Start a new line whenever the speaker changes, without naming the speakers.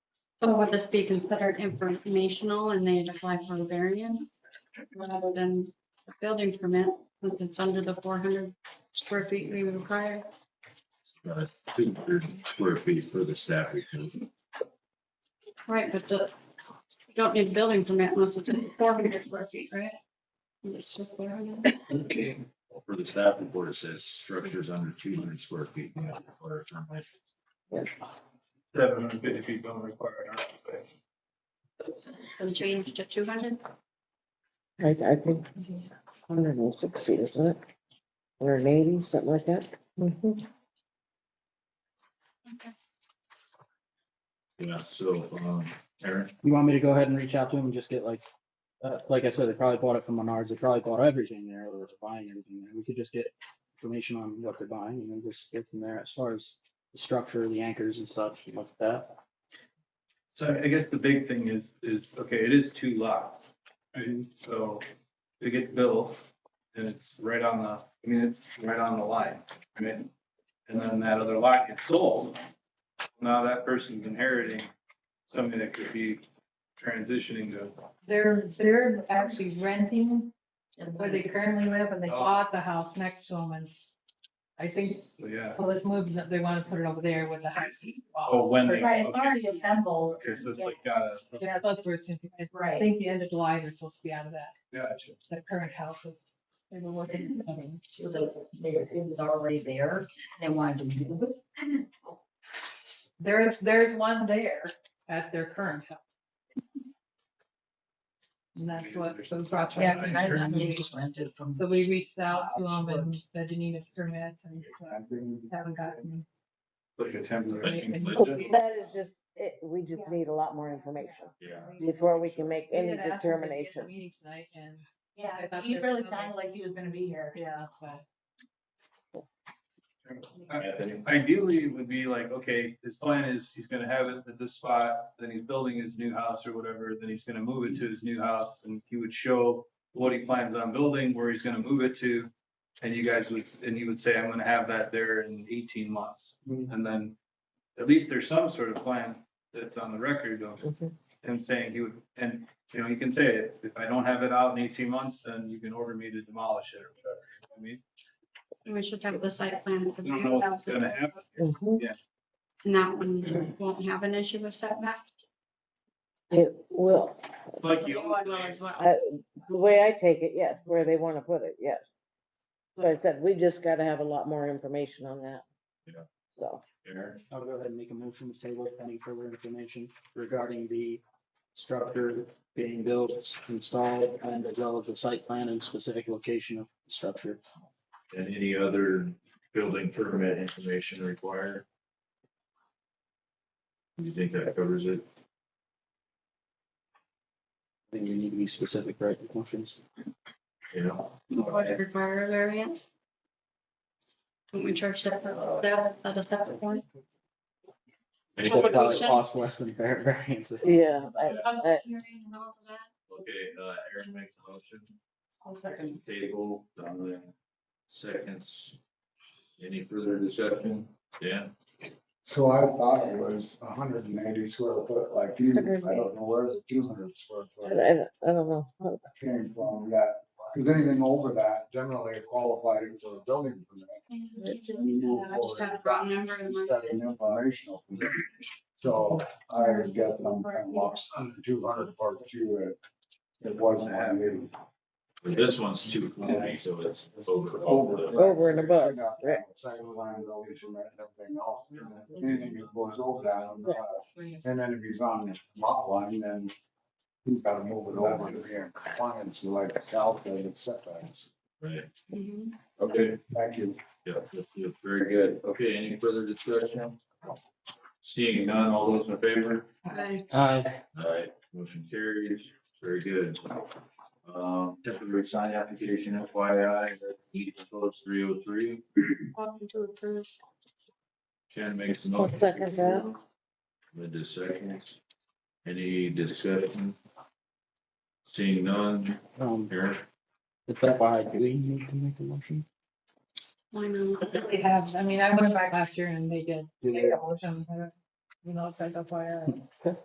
So would this be considered informational and they'd apply for a variance rather than a building permit since it's under the four hundred square feet we require?
uh, two hundred square feet for the staff. report.
Right, but the, you don't need a building permit unless it's four hundred square feet, right? It's just 400.
Okay.
For the staff report, it says structures under two hundred square feet. may not require a permit.
Seven hundred fifty feet don't require an occupancy.
And change to two hundred?
I, I think, hundred and six feet, isn't it? Hundred and eighty, something like that? Mm-hmm.
Yeah, so, um, Aaron,
You want me to go ahead and reach out to them and just get like, uh, like I said, they probably bought it from Menards. They probably bought everything there or they're buying everything there. We could just get information on what they're buying and then just get from there as far as the structure, the anchors and stuff, and like that.
So I guess the big thing is, is, okay, it is two lots. right? So if it gets built and it's right on the, I mean, it's right on the line. right? And then that other lot gets sold. Now that person's inheriting something that could be transitioning to,
They're, they're actually renting where they currently live and they
Oh.
bought the house next to them and I think
so yeah.
public movement, they want to put it over there with the house.
Oh, when they.
Right, it's
okay.
already assembled.
Okay, so it's like, uh, got a,
Yeah, that's where it's, gonna be. I
Right.
think the end of July, they're supposed to be out of that,
gotcha.
that current house. is- They were working. on it.
So the, there, it was already there, they wanted to move it.
There is, there's one there at their current house. And that's what those brought. to our
Yeah, because I, I
attention.
they just rented from.
So we reached out to them and said you need a permit and uh, haven't gotten.
Like a temporary.
Right, and-
Linda?
That is just, it, we just need a lot more information
yeah,
before we can make
We
any
had asked them to be at
determination.
the Meeting tonight and, I
Yeah,
thought
he
they were
really
coming.
sounded like he was gonna be here.
yeah, so.
Anthony?
Ideally, it would be like, okay, his plan is he's gonna have it at this spot, then he's building his new house or whatever, then he's gonna move it to his new house. And he would show what he plans on building, where he's gonna move it to. And you guys would, and you would say, I'm gonna have that there in eighteen months. And then at least there's some sort of plan that's on the record of
Mhm.
him saying he would, and, you know, you can say, it. if I don't have it out in eighteen months, then you can order me to demolish it or whatever. I mean,
We should have the site plan. for
I
the
don't know what's
3,000.
gonna happen.
Mhm.
And that one won't have an issue with setbacks.
It will,
It's like you
Well,
always
well,
say,
as well.
I- the way I take it, yes, where they want to put it, yes. But I said, we just got to have a lot more information on that.
Yeah.
So,
Aaron,
I'll go ahead and make a motion to table pending further information regarding the structure being built, installed, and as well as the site plan and specific location of the structure.
and any other building permit information required? You think that covers it?
I think we need to be specific, right, with motions?
Yeah.
Would it require a variance? Don't we charge separate, that, that a separate one?
Any-
Well,
It'll
but-
Okay,
probably
Publication.
cost less than var- variance.
yeah, I-
Uh,
Public hearing and all of that?
uh, Aaron makes a motion.
I'll second.
Table, Donovan seconds. Any further discussion? Dan?
So I thought it was hundred and eighty square foot like you, I don't know where the two hundred square
I,
foot
I I don't know.
came from that. Cause anything over that generally qualified for a building permit.
I just had a wrong number in my
Instead of an informational. permit. So I was guessing I'm kind of lost on the two hundred part two, it, it wasn't having.
But This one's two forty, so it's over.
Over and above, right.
Second line building permit, everything else, anything that goes over that, I'm not.
Right.
And then if he's on the lot line, then he's gotta move it over to be in compliance with like the calculated setbacks.
Right,
Mm-hmm.
Mhm.
okay,
Thank you.
yeah, yeah, yeah, very good. Okay, any further discussion? Seeing none, all those in favor?
I
Uh,
All right, motion carries, very good. Um, temporary sign application FYI, E proposed three oh three,
want to approve.
Shannon makes a
I'll
motion.
second that.
Linda seconds. Any discussion? Seeing none,
um,
Aaron,
Is that why do we need to make a motion?
Why not?
They have, I mean, I went back last year and they did. make a motion, uh, You know, it says FYI.